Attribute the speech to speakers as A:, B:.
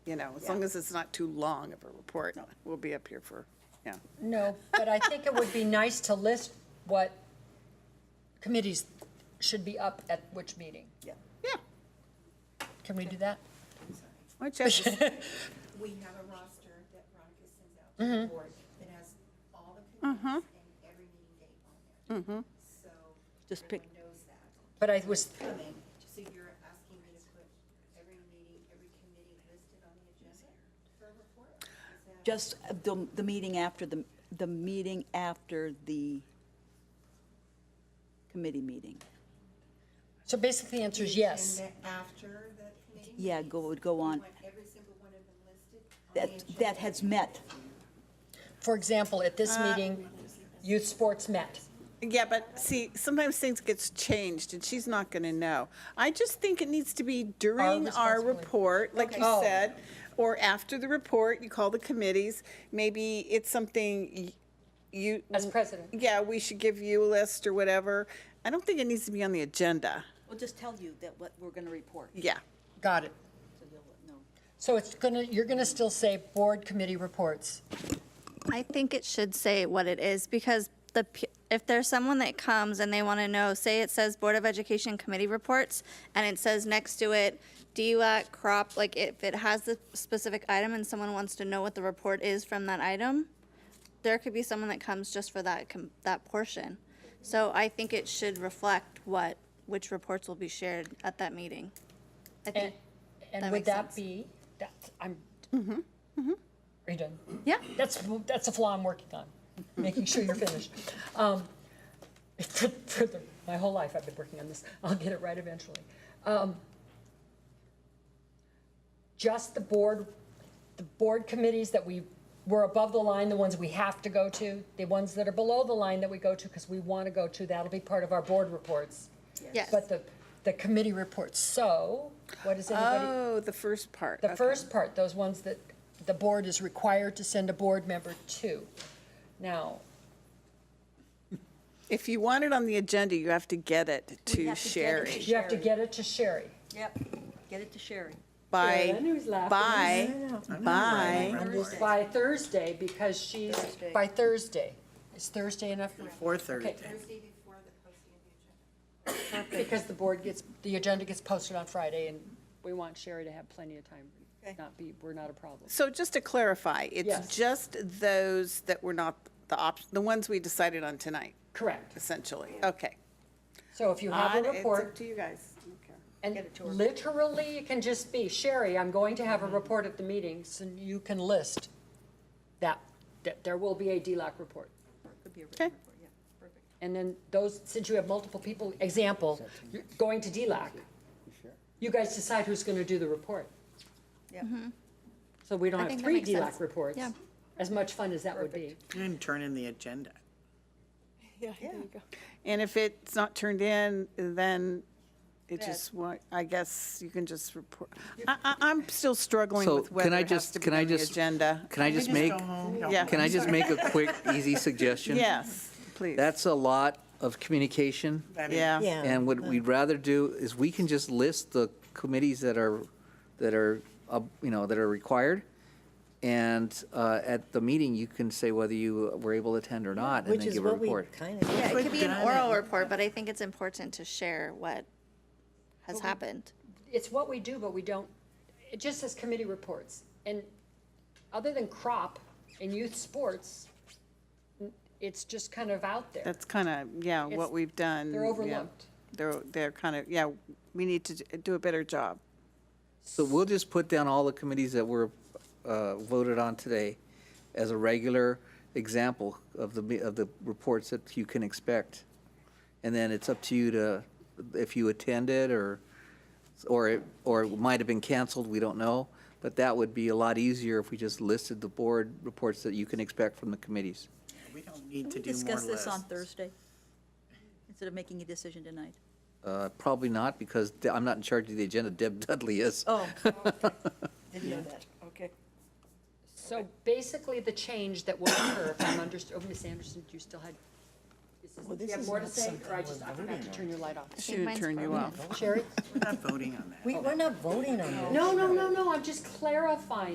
A: you know, as long as it's not too long of a report, we'll be up here for, yeah.
B: No, but I think it would be nice to list what committees should be up at which meeting.
C: Yeah.
A: Yeah.
B: Can we do that?
A: Why don't you have this-
D: We have a roster that Veronica sends out to
C: Mm-hmm.
D: the board that has all the
C: Uh-huh.
D: committees and every meeting date on there. So
C: Mm-hmm. Just pick-
D: everyone knows that.
B: But I was,
D: Coming, so you're asking me to put every meeting, every committee listed on the agenda for a report? Is that-
C: Just uh, the, the meeting after the, the meeting after the committee meeting.
B: so basically the answer is yes.
D: And then after the committee?
C: Yeah, go, would go
D: You
C: on.
D: want every single one of them listed on the
C: That, that
D: agenda?
C: has met.
B: For example, at this meeting, youth sports met.
A: Yeah, but see, sometimes things gets changed and she's not going to know. I just think it needs to be during our
B: responsibility.
A: report, like you
B: Okay. Oh.
A: said, or after the report, you call the committees. Maybe it's something y- you.
B: As president.
A: Yeah, we should give you a list or whatever. I don't think it needs to be on the agenda.
C: We'll just tell you that what we're going to report.
A: Yeah.
B: Got it.
C: So you'll know.
B: So it's gonna, you're gonna still say board committee reports.
E: I think it should say what it is because the, p- if there's someone that comes and they want to know, say it says Board of Education Committee Reports and it says next to it, DUAC, crop, like if it has the specific item and someone wants to know what the report is from that item, there could be someone that comes just for that, com- that portion. So I think it should reflect what, which reports will be shared at that meeting. I
B: And,
E: think,
B: and
E: That
B: would
E: makes
B: that
E: sense. Mm-hmm,
B: be, that, I'm, are you done?
E: yeah,
B: That's, that's a flaw I'm working on, making sure you're finished. Um, For, for the, my whole life, I've been working on this. I'll get it right eventually. Um, Just the board, the board committees that we, were above the line, the ones we have to go to, the ones that are below the line that we go to because we want to go to, that'll be part of our board reports.
E: yes.
B: But the, the committee reports, so what does anybody?
A: Oh, the first part.
B: The
A: Okay.
B: first part, those ones that the board is required to send a board member to. Now,
A: If you want it on the agenda, you have to get it to
C: have to get it to
A: Sherry
B: you have to
C: Sherry.
B: get it to Sherry.
C: Yep, get it to Sherry.
A: by,
B: Sharon, who's laughing?
A: by, by.
B: By Thursday, because she's, by Thursday. Is Thursday enough?
F: Four thirty.
B: Okay.
D: Thursday before the posting of the agenda.
B: Because the board gets, the agenda gets posted on Friday, and we want Sherry to have plenty of time, not be, we're not a problem.
A: So just to clarify,
B: Yes.
A: it's just those that were not the op, the ones we decided on tonight,
B: Correct.
A: essentially. Okay.
B: So if you have
A: Odd,
B: a
A: it's up
B: report,
A: to you guys. I don't care.
B: and literally it can just be, Sherry, I'm going to have a report at the meeting, so you can list that, that there will be a DLAC report.
C: Could be a
A: Okay.
C: written report, yeah, perfect.
B: And then those, since you have multiple people, example, you're going to DLAC. You guys decide who's gonna do the report.
C: Yeah.
B: So we don't have
E: Mm-hmm. think that
B: three
E: makes sense.
B: DLAC reports,
E: Yeah.
B: as much fun as that would be.
F: You didn't turn in the agenda.
A: And if it's not turned in, then it just, wa- I guess you can just report. I, I, I'm still struggling
G: So
A: with whether
G: can I
A: it has
G: just,
A: to be
G: can I
A: on the
G: just?
A: agenda.
G: Can I just make,
A: Yeah.
G: can I just make a quick, easy suggestion?
A: Yes, please.
G: That's a lot of communication.
A: Yeah.
G: And what we'd rather do is we can just list the committees that are, that are, uh, you know, that are required. And uh, at the meeting, you can say whether you were able to attend or not and
H: Which
G: then
H: is
G: give a
H: what we
G: report.
H: kind of,
E: Yeah, it could be an
F: done
E: oral report, but I think it's important to share what has happened.
B: It's what we do, but we don't, it just says committee reports. And other than crop and youth sports, it's just kind of out there.
A: That's kind of, yeah, what
B: It's-
A: we've done.
B: they're
A: yeah.
B: overlooked.
A: They're, they're kind of, yeah, we need to d- do a better job.
G: So we'll just put down all the committees that were uh, voted on today as a regular example of the, of the reports that you can expect. And then it's up to you to, if you attended or, or, it- or it might have been canceled, we don't know. But that would be a lot easier if we just listed the board reports that you can expect from the committees.
F: We don't need to
C: Can we
F: do more
C: discuss this on
F: lists.
C: Thursday? Instead of making a decision tonight?
G: Uh, Probably not, because I'm not in charge of the agenda, Deb Dudley is.
C: Oh,
H: didn't know that, okay.
B: So basically, the change that will occur, if I'm understood, oh, Ms. Anderson, do you still had, is Well, this is not something we're voting on.
I: your light off.
J: think
A: Should
J: mine's
A: turn you
J: broken.
A: off.
K: Sherry?
F: We're not voting on that.
K: We, we're not voting on this.
I: No, no, no, no, I'm just clarifying.